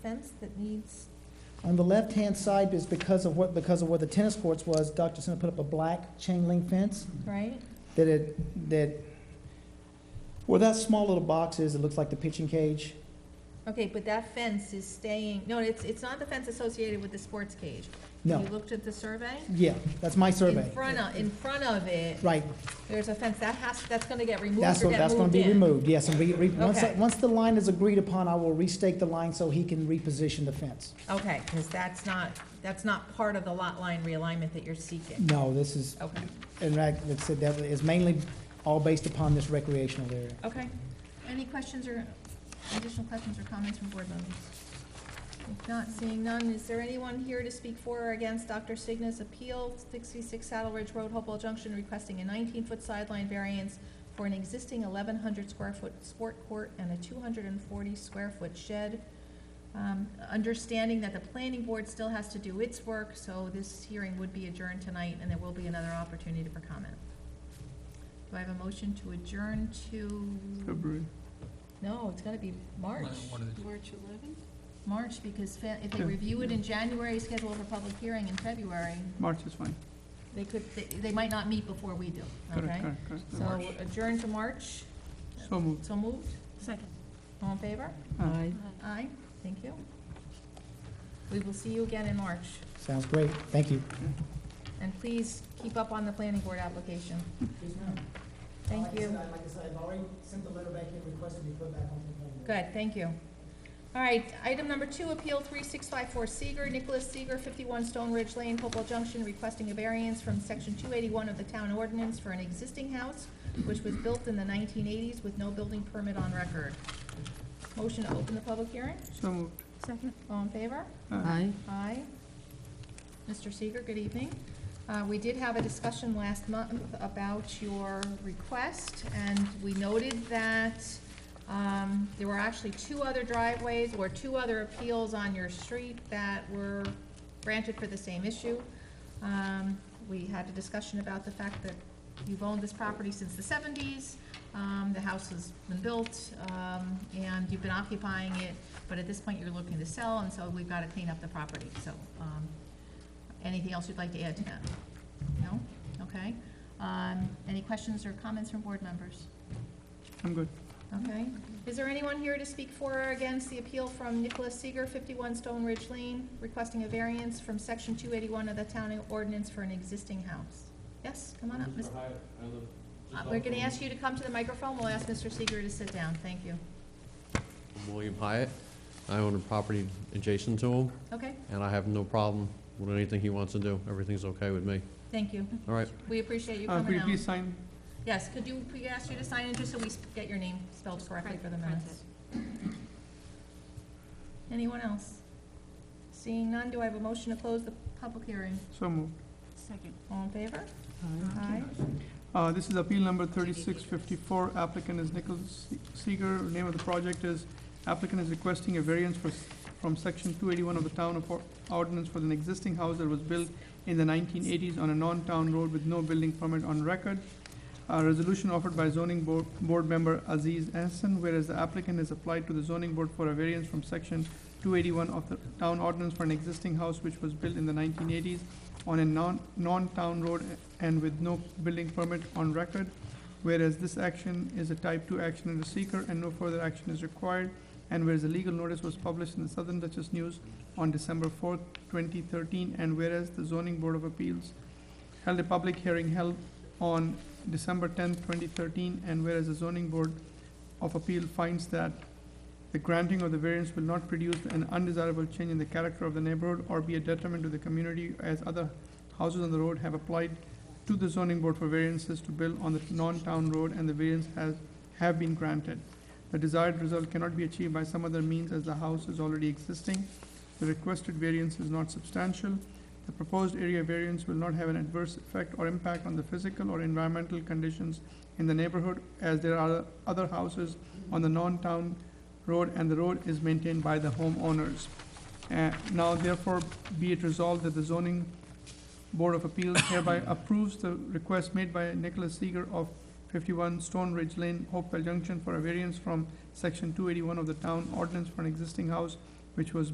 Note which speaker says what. Speaker 1: fence that needs,
Speaker 2: On the left-hand side is because of what, because of where the tennis courts was, Dr. Center put up a black chain link fence
Speaker 1: right?
Speaker 2: that it, that, where that small little box is, it looks like the pitching cage.
Speaker 1: Okay, but that fence is staying, no, it's, it's not the fence associated with the sports cage.
Speaker 2: No,
Speaker 1: You looked at the survey?
Speaker 2: yeah, that's my survey.
Speaker 1: In front of, in front of it,
Speaker 2: Right,
Speaker 1: there's a fence, that has, that's gonna get removed or
Speaker 2: that's,
Speaker 1: get
Speaker 2: what-
Speaker 1: moved in?
Speaker 2: that's gonna be removed, yes, and re, re, once,
Speaker 1: Okay.
Speaker 2: once the line is agreed upon, I will restake the line so he can reposition the fence.
Speaker 1: Okay, because that's not, that's not part of the lot line realignment that you're seeking.
Speaker 2: No, this is,
Speaker 1: Okay,
Speaker 2: in fact, like I said, that is mainly all based upon this recreational area.
Speaker 1: okay. Any questions or, additional questions or comments from board members? If not, seeing none, is there anyone here to speak for or against Dr. Signa's appeal, sixty-six Saddle Ridge Road, Hopewell Junction, requesting a nineteen-foot sideline variance for an existing eleven hundred square foot sport court and a two hundred and forty square foot shed? Um, understanding that the planning board still has to do its work, so this hearing would be adjourned tonight, and there will be another opportunity for comment. Do I have a motion to adjourn to?
Speaker 3: February.
Speaker 1: No, it's gotta be March.
Speaker 3: One of the-
Speaker 4: March 11th?
Speaker 1: March, because fa- if they
Speaker 3: Yeah.
Speaker 1: review it in January, schedule for public hearing in February,
Speaker 3: March is fine.
Speaker 1: they could, they, they might not meet before we do,
Speaker 3: Correct,
Speaker 1: okay?
Speaker 3: correct, correct.
Speaker 1: So adjourn to March,
Speaker 3: So moved.
Speaker 1: so moved,
Speaker 4: Second.
Speaker 1: all in favor?
Speaker 3: Aye.
Speaker 1: Aye, thank you. We will see you again in March,
Speaker 2: Sounds great, thank you.
Speaker 1: and please keep up on the planning board application. Thank you.
Speaker 2: Like I said, I've already sent the letter back in requesting be put back on the planning board.
Speaker 1: Good, thank you. All right, item number two, Appeal 3654 Seeger, Nicholas Seeger, 51 Stone Ridge Lane, Hopewell Junction, requesting a variance from Section 281 of the Town Ordinance for an existing house which was built in the 1980s with no building permit on record. Motion to open the public hearing?
Speaker 3: So moved.
Speaker 4: Second.
Speaker 1: All in favor?
Speaker 4: Aye.
Speaker 1: Aye. Mr. Seeger, good evening. Uh, We did have a discussion last month about your request, and we noted that um, there were actually two other driveways or two other appeals on your street that were granted for the same issue. Um, We had a discussion about the fact that you've owned this property since the seventies. um, The house has been built, um, and you've been occupying it, but at this point, you're looking to sell, and so we've got to clean up the property. So um, anything else you'd like to add to that? No? Okay. Um, Any questions or comments from board members?
Speaker 3: I'm good.
Speaker 1: Okay. Is there anyone here to speak for or against the appeal from Nicholas Seeger, 51 Stone Ridge Lane, requesting a variance from Section 281 of the Town Ordinance for an existing house? Yes, come on up. Mr.
Speaker 5: Hi, I live just
Speaker 1: Uh,
Speaker 5: off
Speaker 1: We're going to
Speaker 5: of-
Speaker 1: ask you to come to the microphone. We'll ask Mr. Seeger to sit down. Thank you.
Speaker 5: I'm William Hyatt. I own a property adjacent to him,
Speaker 1: Okay,
Speaker 5: and I have no problem with anything he wants to do. Everything's okay with me.
Speaker 1: thank you.
Speaker 5: All right,
Speaker 1: We appreciate you
Speaker 3: Uh, Could
Speaker 1: coming
Speaker 3: you
Speaker 1: out.
Speaker 3: please sign?
Speaker 1: Yes, could you, we ask you to sign in just so we s- get your name spelled correctly for the
Speaker 4: Print- print
Speaker 1: minutes? Anyone else? Seeing none, do I have a motion to close the public hearing?
Speaker 3: So moved.
Speaker 4: Second.
Speaker 1: All in favor? Aye.
Speaker 3: Uh, This is appeal number 3654. Applicant is Nicholas Se- Seeger. Name of the project is applicant is requesting a variance for s- from section 281 of the town of Or- ordinance for an existing house that was built in the 1980s on a non-town road with no building permit on record. A resolution offered by zoning board board member Aziz Hassan, whereas the applicant has applied to the zoning board for a variance from section 281 of the town ordinance for an existing house which was built in the 1980s on a non, non-town road and with no building permit on record, whereas this action is a type-two action under seeker and no further action is required, and whereas the legal notice was published in the Southern Dutchess News on December fourth, twenty thirteen, and whereas the zoning board of appeals held a public hearing held on December tenth, twenty thirteen, and whereas the zoning board of appeal finds that the granting of the variance will not produce an undesirable change in the character of the neighborhood or be a detriment to the community as other houses on the road have applied to the zoning board for variances to build on the non-town road and the variance has, have been granted. The desired result cannot be achieved by some other means as the house is already existing. The requested variance is not substantial. The proposed area variance will not have an adverse effect or impact on the physical or environmental conditions in the neighborhood as there are other houses on the non-town road and the road is maintained by the homeowners. Uh, now therefore be it resolved that the zoning Board of Appeals hereby approves the request made by Nicholas Seeger of 51 Stone Ridge Lane, Hopewell Junction, for a variance from Section 281 of the Town Ordinance for an existing house which was